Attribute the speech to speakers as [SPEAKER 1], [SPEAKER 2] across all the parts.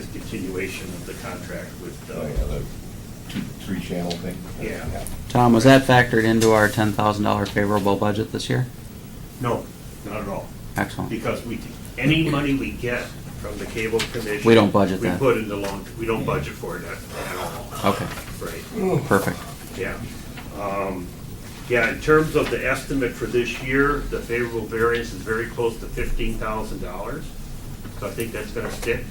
[SPEAKER 1] discontinuation of the contract with,
[SPEAKER 2] Oh,
[SPEAKER 1] uh,
[SPEAKER 2] yeah, the two, three channel thing?
[SPEAKER 1] Yeah.
[SPEAKER 3] Tom, was that factored into our ten thousand dollar favorable budget this year?
[SPEAKER 1] no, not at all.
[SPEAKER 3] Excellent.
[SPEAKER 1] Because we, any money we get from the cable commission.
[SPEAKER 3] We don't budget that.
[SPEAKER 1] We put in the long, we don't budget for it at at all.
[SPEAKER 3] Okay,
[SPEAKER 1] Right,
[SPEAKER 3] perfect.
[SPEAKER 1] yeah. Um, Yeah, in terms of the estimate for this year, the favorable variance is very close to fifteen thousand dollars. So I think that's gonna stick.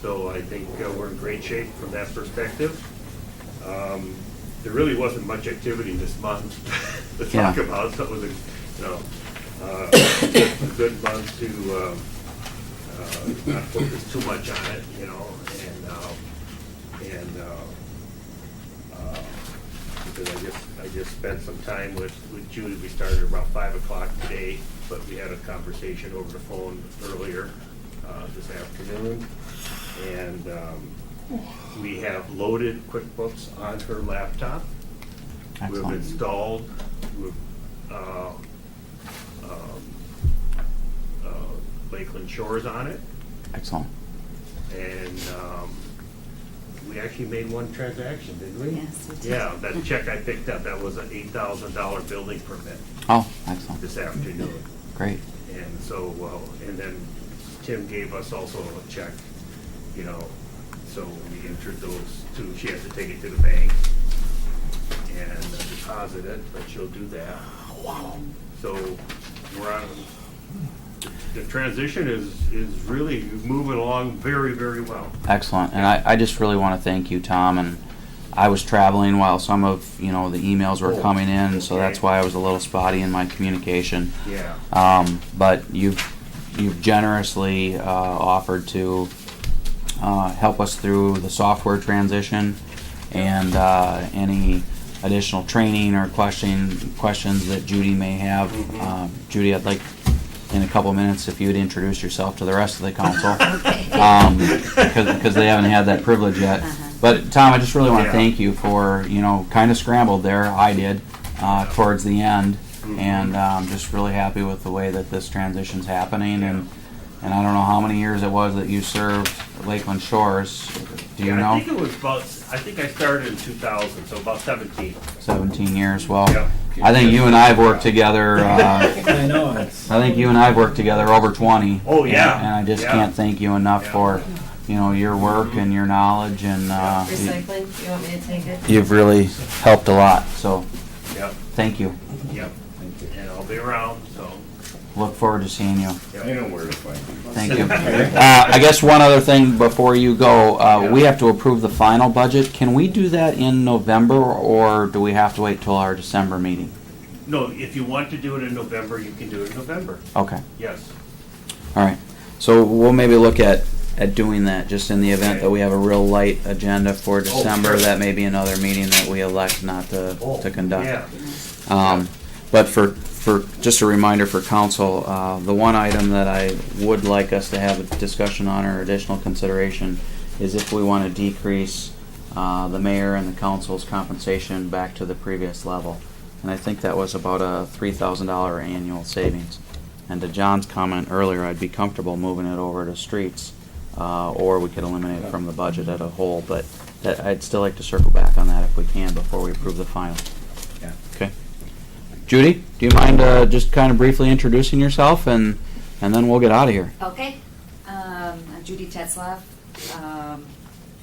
[SPEAKER 1] So I think uh, we're in great shape from that perspective. Um, There really wasn't much activity this month to talk
[SPEAKER 3] Yeah.
[SPEAKER 1] about, so it was, a you know, uh, a good month to um, uh, not focus too much on it, you know, and, um, and, uh, uh, because I just, I just spent some time with, with Judy. We started about five o'clock today, but we had a conversation over the phone earlier uh, this afternoon. And um, we have loaded QuickBooks on her laptop. We've
[SPEAKER 3] Excellent.
[SPEAKER 1] installed, we've, uh, um, uh, Lakeland Shores on it.
[SPEAKER 3] Excellent.
[SPEAKER 1] And um, we actually made one transaction, didn't we?
[SPEAKER 4] Yes, we did.
[SPEAKER 1] Yeah, that check I picked up, that was an eight thousand dollar building permit
[SPEAKER 3] Oh, excellent.
[SPEAKER 1] this afternoon.
[SPEAKER 3] Great.
[SPEAKER 1] And so, well, and then Tim gave us also a check, you know, so we entered those two, she has to take it to the bank and deposit it, but she'll do that. So we're on, the transition is, is really moving along very, very well.
[SPEAKER 3] Excellent. And I, I just really want to thank you, Tom. And I was traveling while some of, you know, the emails were
[SPEAKER 1] Oh,
[SPEAKER 3] coming in, so that's
[SPEAKER 1] okay.
[SPEAKER 3] why I was a little spotty in my communication.
[SPEAKER 1] Yeah.
[SPEAKER 3] Um, but you've, you've generously, uh, offered to, uh, help us through the software transition and, uh, any additional training or question, questions that Judy may have.
[SPEAKER 1] Mhm.
[SPEAKER 3] Um, Judy, I'd like, in a couple minutes, if you'd introduce yourself to the rest of the council. Um, because, because they haven't had that privilege yet.
[SPEAKER 4] Uh-huh.
[SPEAKER 3] But Tom, I just really want to
[SPEAKER 1] Yeah.
[SPEAKER 3] thank you for, you know, kind of scrambled there, I did, uh, towards the end. And um, just really happy with the way that this transition's happening. And, and I don't know how many years it was that you served Lakeland Shores. Do you
[SPEAKER 1] Yeah, I
[SPEAKER 3] know?
[SPEAKER 1] think it was about, I think I started in 2000, so about 17.
[SPEAKER 3] 17 years. Well,
[SPEAKER 1] Yeah.
[SPEAKER 3] I think you and I have worked together. Uh,
[SPEAKER 5] I know, it's,
[SPEAKER 3] I think you and I have worked together over 20.
[SPEAKER 1] Oh,
[SPEAKER 3] And-
[SPEAKER 1] yeah.
[SPEAKER 3] And, I just
[SPEAKER 1] Yeah.
[SPEAKER 3] can't thank you enough
[SPEAKER 1] Yeah.
[SPEAKER 3] for, you know, your work and your knowledge and. Uh,
[SPEAKER 4] Recycling, you want me to take it?
[SPEAKER 3] you've really helped a lot. So
[SPEAKER 1] Yep,
[SPEAKER 3] thank you.
[SPEAKER 1] yep. And I'll be around, so.
[SPEAKER 3] Look forward to seeing you.
[SPEAKER 2] I know where to find
[SPEAKER 3] Thank you. Uh, I guess one other thing before you go, uh, we have to approve the final budget. Can we do that in November or do we have to wait till our December meeting?
[SPEAKER 1] No, if you want to do it in November, you can do it in November.
[SPEAKER 3] Okay,
[SPEAKER 1] Yes.
[SPEAKER 3] all right. So we'll maybe look at, at doing that, just in the event that we have a real light agenda for December.
[SPEAKER 1] Oh, sure. Oh,
[SPEAKER 3] That may be another meeting that we elect not to, to conduct.
[SPEAKER 1] Yeah.
[SPEAKER 3] Um, But for, for, just a reminder for council, uh, the one item that I would like us to have a discussion on or additional consideration is if we want to decrease uh, the mayor and the council's compensation back to the previous level. And I think that was about a three thousand dollar annual savings. And to John's comment earlier, I'd be comfortable moving it over to streets, uh, or we could eliminate it from the budget at a whole, but that, I'd still like to circle back on that if we can before we approve the final.
[SPEAKER 5] yeah.
[SPEAKER 3] Okay. Judy, do you mind uh, just kind of briefly introducing yourself and, and then we'll get out of here?
[SPEAKER 4] Okay, um, I'm Judy Tetzlaff. Um,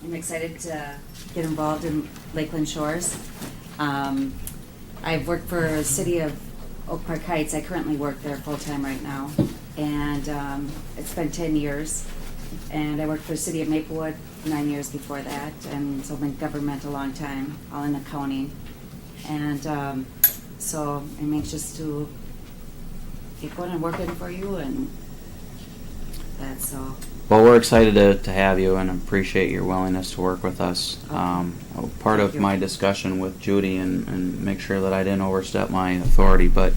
[SPEAKER 4] I'm excited to get involved in Lakeland Shores. Um, I've worked for the city of Oak Park Heights. I currently work there full-time right now. And, um, it's been ten years. And I worked for the city of Maplewood nine years before that. And so I've been in government a long time, all in accounting. And, um, so I'm anxious to get going and working for you and that's all.
[SPEAKER 3] Well, we're excited to, to have you and appreciate your willingness to work with us. Um, part of
[SPEAKER 4] Thank you.
[SPEAKER 3] my discussion with Judy and, and make sure that I didn't overstep my authority, but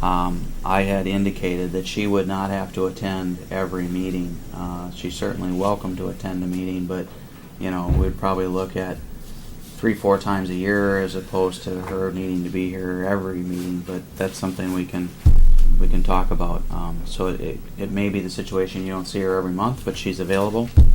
[SPEAKER 3] um, I had indicated that she would not have to attend every meeting. Uh, she's certainly welcome to attend a meeting, but you know, we'd probably look at three, four times a year as opposed to her needing to be here every meeting, but that's something we can, we can talk about. Um, so it, it may be the situation you don't see her every month, but she's available.